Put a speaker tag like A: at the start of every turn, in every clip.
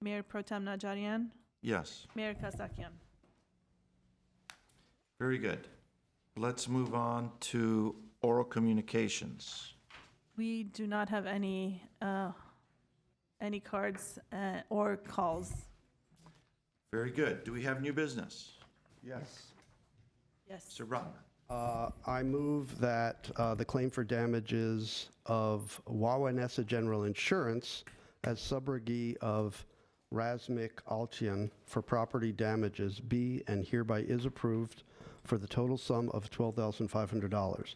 A: Mayor Pro Tem Najarian,
B: Yes,
A: Mayor Kasakian.
B: very good. Let's move on to oral communications.
A: We do not have any, uh, any cards uh, or calls.
B: Very good. Do we have new business?
C: Yes.
A: Yes.
B: Mr. Brotner?
C: Uh, I move that uh, the claim for damages of Wawanesa General Insurance as subrogate of Razmik Alchian for property damages be and hereby is approved for the total sum of $12,500.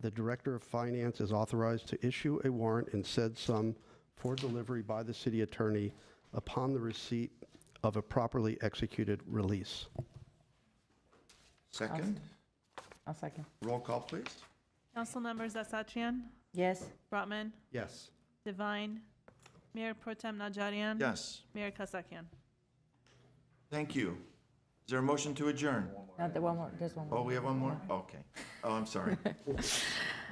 C: The Director of Finance is authorized to issue a warrant in said sum for delivery by the city attorney upon the receipt of a properly executed release.
B: Second,
D: I'll second.
B: roll call, please.
A: Council members Asatrian,
D: Yes.
A: Brotman,
C: Yes.
A: Divine, Mayor Pro Tem Najarian.
B: Yes,
A: Mayor Kasakian.
B: thank you. Is there a motion to adjourn?
D: Not the one more, there's one
B: Oh,
D: more.
B: we have one more? Okay. Oh, I'm sorry. I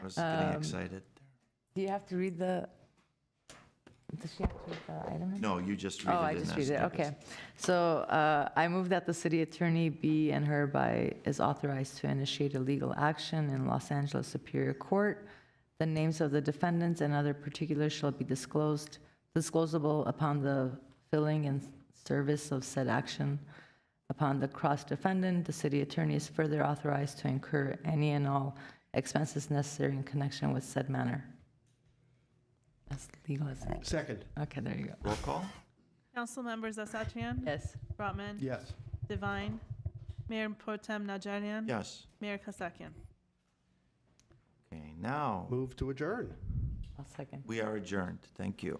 B: was
D: Um,
B: getting excited.
D: Do you have to read the, does she have to read the item? number?
B: No, you just read it.
D: Oh, I
B: and
D: just
B: that's
D: read it,
B: what is.
D: okay. So uh, I move that the city attorney be and hereby is authorized to initiate a legal action in Los Angeles Superior Court. The names of the defendants and other particulars shall be disclosed, disclosable upon the filling and service of said action. Upon the cross-defendant, the city attorney is further authorized to incur any and all expenses necessary in connection with said matter. As legal as it.
C: Second.
D: Okay, there you go.
B: Roll call?
A: Council members Asatrian,
D: Yes.
A: Brotman,
C: Yes.
A: Divine, Mayor Pro Tem Najarian.
B: Yes.
A: Mayor Kasakian.
B: Okay, now
C: Move to adjourn.
D: I'll second.
B: we are adjourned. Thank you.